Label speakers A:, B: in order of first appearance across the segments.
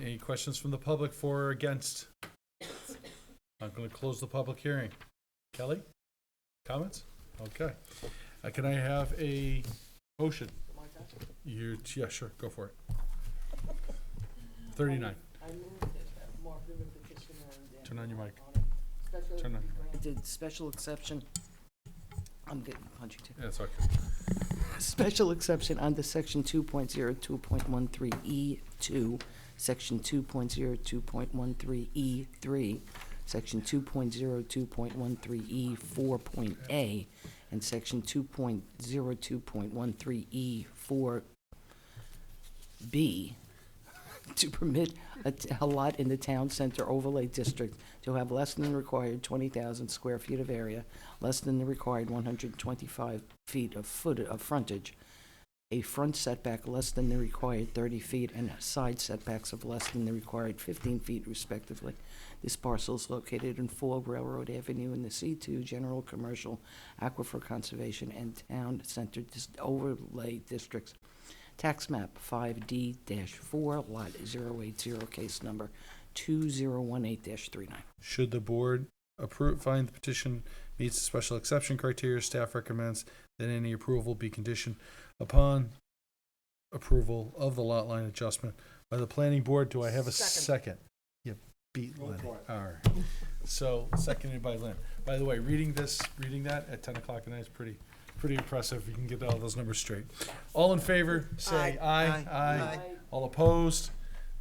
A: Any questions from the public for or against? I'm going to close the public hearing. Kelly? Comments? Okay. Uh, Can I have a motion? You, yeah, sure, go for it. 39.
B: I moved that uh, Mark River petition and.
A: Turn on your mic.
B: on a Special.
A: Turn on your mic.
B: Granted special exception. I'm getting punchy too.
A: That's okay.
B: Special exception under section two point zero two point one three E two, section two point zero two point one three E three, section two point zero two point one three E four point A, and section two point zero two point one three E four B to permit a t- a lot in the town center overlay district to have less than the required 20,000 square feet of area, less than the required 125 feet of foot, of frontage, a front setback less than the required 30 feet, and side setbacks of less than the required 15 feet respectively. This parcel is located in 4 Railroad Avenue in the C2 General Commercial Aquifer Conservation and Town Center Dis- Overlay Districts. Tax map five D four, lot zero eight zero, case number two zero one eight 39
A: Should the board approve, find the petition meets the special exception criteria, staff recommends that any approval be conditioned upon approval of the lot line adjustment by the planning board. Do I have a second? You beat Lenny. All right. So seconded by Lynn. By the way, reading this, reading that at ten o'clock at night is pretty, pretty impressive. You can get all those numbers straight. All in favor, say aye, aye. All opposed?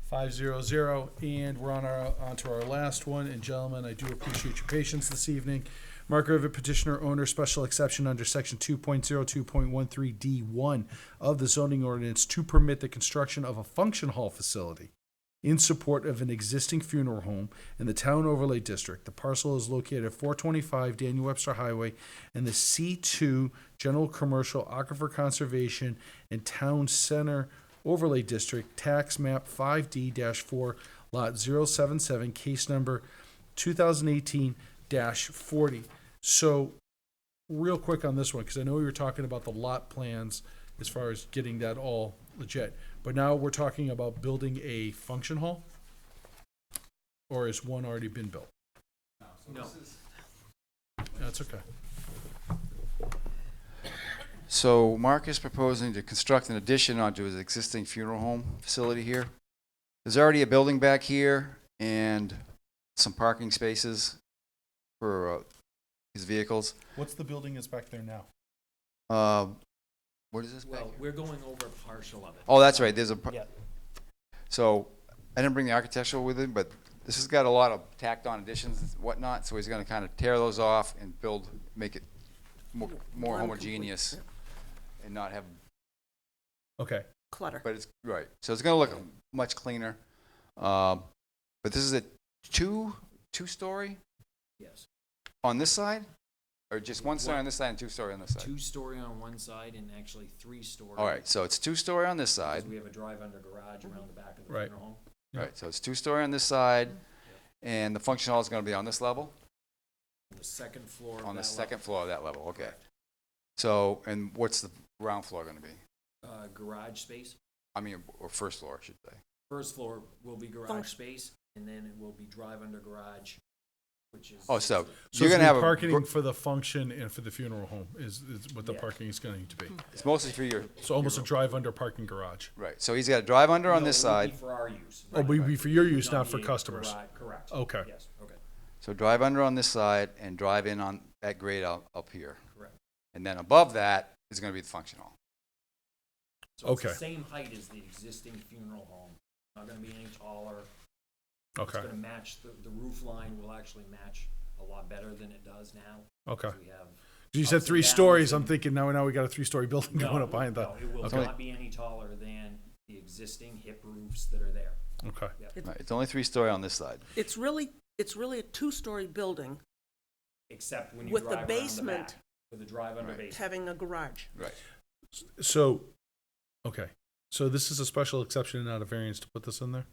A: Five zero zero, and we're on our, onto our last one, and gentlemen, I do appreciate your patience this evening. Mark Rivet petitioner owner special exception under section two point zero two point one three D one of the zoning ordinance to permit the construction of a function hall facility in support of an existing funeral home in the town overlay district. The parcel is located at 425 Daniel Webster Highway in the C2 General Commercial Aquifer Conservation and Town Center Overlay District, tax map 5D-4, lot 077, case number 2018-40. So real quick on this one, because I know we were talking about the lot plans as far as getting that all legit. But now we're talking about building a function hall? Or has one already been built? No. That's okay.
C: So Mark is proposing to construct an addition onto his existing funeral home facility here. There's already a building back here and some parking spaces for uh, his vehicles.
A: What's the building that's back there now?
C: Uh, What is this back
D: Well,
C: here?
D: we're going over partial of it.
C: Oh, that's right, there's a, par-
D: Yeah.
C: so, I didn't bring the architectural with him, but this has got a lot of tacked-on additions and whatnot, so he's gonna kind of tear those off and build, make it more more homogeneous and not have
A: Okay,
E: clutter.
C: But it's right. So it's gonna look much cleaner. Um, but this is a two two story
D: Yes.
C: on this side, or just one story
D: One-
C: on this side and two story on this side.
D: Two-story on one side and actually three-story.
C: All right. So it's two story on this side.
D: Because we have a drive-under garage around the back of the
A: Right.
D: funeral home.
A: Yeah.
C: Right. So it's two story on this side, and the function hall is gonna be on this level,
D: On the second floor of
C: on the
D: that
C: second floor of that level. Okay. So and what's the ground floor gonna be?
D: level, Uh, garage space.
C: I mean, or first floor, I should say.
D: First floor will be garage
E: Function-
D: space, and then it will be drive-under garage, which is.
C: Oh, so,
A: so
C: you're
A: it's
C: gonna
A: gonna
C: have a
A: be
C: gr-
A: parking for the function and for the funeral home is, is what the
D: Yeah. Hmm.
A: parking is gonna need to be.
C: It's mostly for your
A: So almost a drive under parking garage.
C: right. So he's got a drive under on
D: No,
C: this
D: it would
C: side.
D: be For our use.
A: Oh, but it'd be for your use, not for
D: the
A: customers.
D: garage- Correct.
A: Okay.
D: Yes, okay,
C: So drive under on this side and drive in on that grade up, up here.
D: correct.
C: And then above that is going to be the function hall.
D: So it's the
A: Okay.
D: Same height as the existing funeral home. Not gonna be any taller.
A: Okay,
D: It's gonna match, the, the roof line will actually match a lot better than it does now.
A: okay.
D: We have.
A: You said
D: ups and
A: three
D: downs
A: stories, I'm
D: and-
A: thinking now, now we got a three-story building
D: No,
A: going up behind the,
D: No, it will
A: okay.
D: not be any taller than the existing hip roofs that are there.
A: okay.
E: It's-
C: Right, It's only three story on this side.
E: It's really, it's really a two-story building
D: Except when you
E: With
D: drive
E: the
D: around the
E: basement.
D: back, with the drive under
C: Right.
D: basement.
E: having a garage.
C: Right.
A: So, okay, so this is a special exception and not a variance to put this in there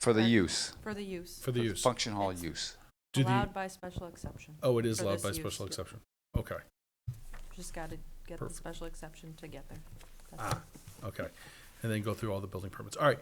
C: For the use.
F: For the use,
A: for the use?
C: Function hall use.
A: Do the-
F: allowed by special exception.
A: Oh, it is
F: for
A: allowed
F: this
A: by
F: use.
A: special exception. Okay,
F: Just gotta get the
A: Perfect.
F: special exception to get there. That's
A: ah, okay. And then go through all the building permits. All right.